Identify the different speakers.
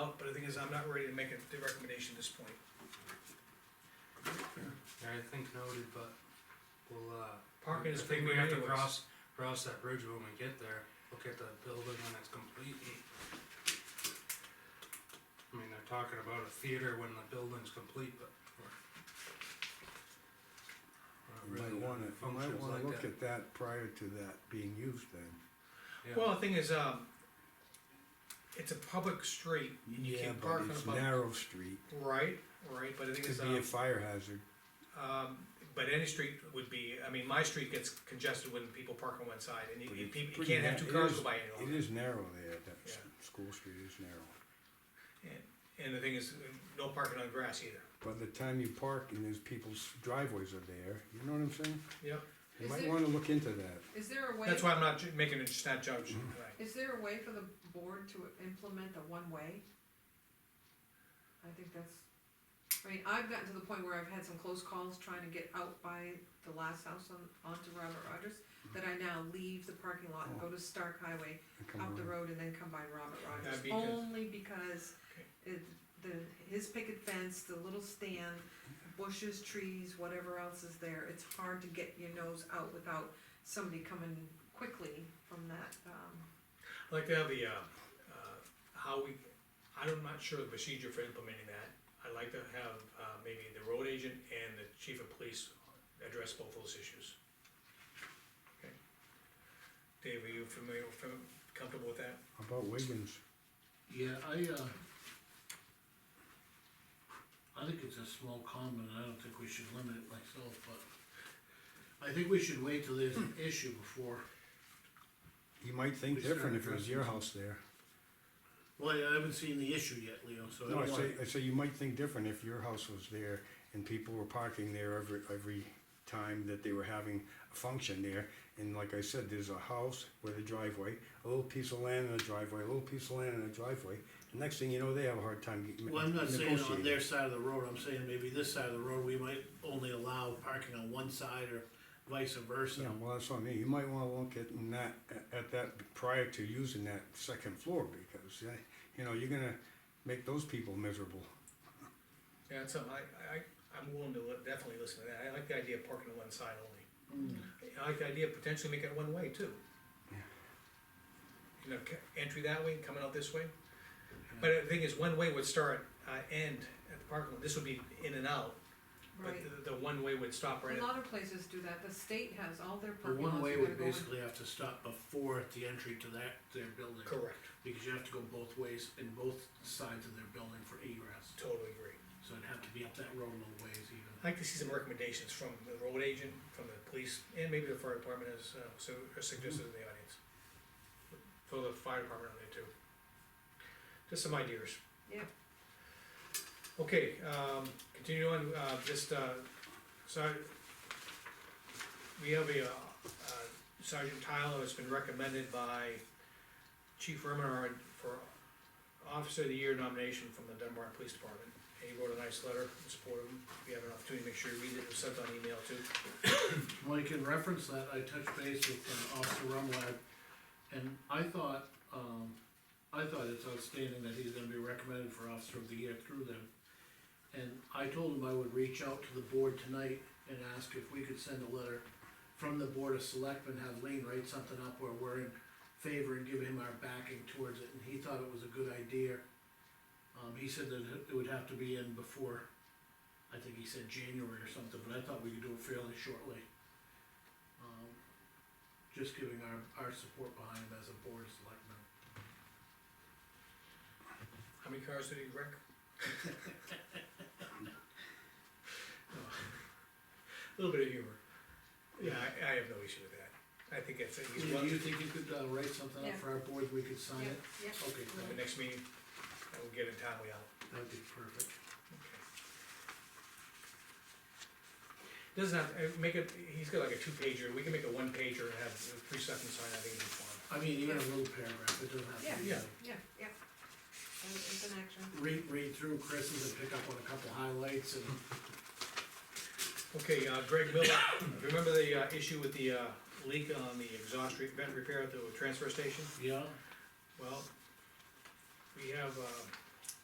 Speaker 1: the thing is, I'm not ready to make a recommendation at this point.
Speaker 2: I think noted, but we'll, uh.
Speaker 1: Parking is
Speaker 2: I think we have to
Speaker 1: premium anyways.
Speaker 2: cross, cross that bridge when we get there, look at the building when it's complete. and- I mean, they're talking about a theater when the building's complete, but.
Speaker 3: You might wanna, you might wanna look at that prior to that being used then.
Speaker 1: Well, the thing is, um, it's a public street, and you
Speaker 3: Yeah,
Speaker 1: can't
Speaker 3: but
Speaker 1: park on a
Speaker 3: it's
Speaker 1: public.
Speaker 3: narrow street,
Speaker 1: Right, right, but the thing
Speaker 3: could
Speaker 1: is,
Speaker 3: be a
Speaker 1: um,
Speaker 3: fire hazard.
Speaker 1: um, but any street would be, I mean, my street gets congested when people park on one side, and you,
Speaker 3: but
Speaker 1: you
Speaker 3: it's
Speaker 1: peop- you
Speaker 3: pretty
Speaker 1: can't have
Speaker 3: na-
Speaker 1: two
Speaker 3: it
Speaker 1: cars
Speaker 3: is-
Speaker 1: go by
Speaker 3: It
Speaker 1: anymore.
Speaker 3: is narrow there, that s-
Speaker 1: Yeah.
Speaker 3: school street is narrow.
Speaker 1: And the thing is, no parking on grass either.
Speaker 3: By the time you park and there's people's driveways are there, you know what I'm saying?
Speaker 1: Yep,
Speaker 3: You
Speaker 4: Is
Speaker 3: might
Speaker 4: there-
Speaker 3: wanna look into that.
Speaker 4: Is there a way,
Speaker 1: that's why I'm not ju- making a snap judgment
Speaker 3: Mm-hmm.
Speaker 1: tonight.
Speaker 4: is there a way for the board to implement a one-way? I think that's, I mean, I've gotten to the point where I've had some close calls trying to get out by the last house on, onto Robert Rogers, that I now leave the parking lot and
Speaker 1: Oh.
Speaker 4: go to Stark Highway,
Speaker 3: and come
Speaker 4: up the
Speaker 3: around.
Speaker 4: road and then come by Robert Rogers,
Speaker 1: Yeah, because-
Speaker 4: only because it, the, his picket fence, the little stand, bushes, trees, whatever else is there, it's hard to get your nose out without somebody coming quickly from that, um,
Speaker 1: I'd like to have the, uh, uh, how we, I'm not sure the procedure for implementing that. I'd like to have, uh, maybe the road agent and the chief of police address both those issues. Okay. Dave, are you familiar, fam- comfortable with that?
Speaker 3: How About Wiggins,
Speaker 5: Yeah, I, uh, I think it's a small comment, I don't think we should limit it myself, but I think we should wait till there's
Speaker 3: Hmm.
Speaker 5: an issue before,
Speaker 3: you might think
Speaker 5: We start
Speaker 3: different if it was your
Speaker 5: addressing-
Speaker 3: house there.
Speaker 5: well, I haven't seen the issue yet, Leo, so I
Speaker 3: No, I
Speaker 5: don't wanna.
Speaker 3: say, I say you might think different if your house was there and people were parking there every, every time that they were having a function there. And like I said, there's a house with a driveway, a little piece of land and a driveway, a little piece of land and a driveway. The next thing you know, they have a hard time getting.
Speaker 5: Well, I'm not saying on their side of the road, I'm saying maybe this side of the road, we might only allow parking on one side or vice versa.
Speaker 3: Yeah, well, that's what I mean, you might wanna look at in that, at that prior to using that second floor, because, eh, you know, you're gonna make those people miserable.
Speaker 1: Yeah, that's something, I, I, I'm willing to li- definitely listen to that, I like the idea of parking on one side only. I like the idea of potentially making it one way too. You know, ca- entry that way, coming out this way. But the thing is, one way would start, uh, end at the parking lot, this would be in and out, but
Speaker 4: right.
Speaker 1: the, the one way would stop right
Speaker 4: A
Speaker 1: at.
Speaker 4: lot of places do that, the state has all their
Speaker 5: The
Speaker 4: parking lots.
Speaker 5: one way
Speaker 4: you
Speaker 5: would
Speaker 4: gotta go in.
Speaker 5: basically have to stop before the entry to that, their building.
Speaker 1: Correct,
Speaker 5: Because you have to go both ways in both sides of their building for egress,
Speaker 1: totally agree.
Speaker 5: so it'd have to be up that road a little ways even.
Speaker 1: I'd like to see some recommendations from the road agent, from the police, and maybe the fire department as, uh, so, as suggested in the audience. Throw the fire department on there too. Just some ideas.
Speaker 4: Yeah.
Speaker 1: Okay, um, continue on, uh, just, uh, so we have a, uh, Sergeant Tyler has been recommended by Chief Remenard for Officer of the Year nomination from the Dunbar Police Department. And he wrote a nice letter in support of him. If you have an opportunity, make sure you read it, it was sent on email too.
Speaker 5: Well, you can reference that, I touched base with uh, Officer Rumlad, and I thought, um, I thought it's outstanding that he's gonna be recommended for Officer of the Year through them. And I told him I would reach out to the board tonight and ask if we could send a letter from the Board of Selectmen, have Lean write something up where we're in favor and give him our backing towards it, and he thought it was a good idea. Um, he said that it would have to be in before, I think he said January or something, but I thought we could do it fairly shortly um, just giving our, our support behind him as a board of selectmen.
Speaker 1: How many cars did he wreck? A little bit of humor. Yeah, I, I have no issue with that. I think that's, he's
Speaker 5: Do you
Speaker 1: welcome
Speaker 5: think you could, uh, write something up
Speaker 4: Yeah.
Speaker 5: for our board, we could sign
Speaker 4: Yeah,
Speaker 5: it?
Speaker 4: yeah.
Speaker 5: Okay,
Speaker 1: at the next meeting, and we'll get it timely out.
Speaker 5: that'd be perfect.
Speaker 1: Okay. Doesn't have, uh, make it, he's got like a two pager, we can make a one pager and have three seconds sign, I think it'd be fine.
Speaker 5: I mean, even a little paragraph, it doesn't have to be.
Speaker 1: Yeah.
Speaker 4: Yeah, yeah. And It's an action.
Speaker 5: Read, read through Chris's and pick up on a couple highlights and
Speaker 1: Okay, uh, Greg Miller, remember the, uh, issue with the, uh, leak on the exhaust re- vent repair at the transfer station?
Speaker 5: Yeah,
Speaker 1: Well, we have, uh,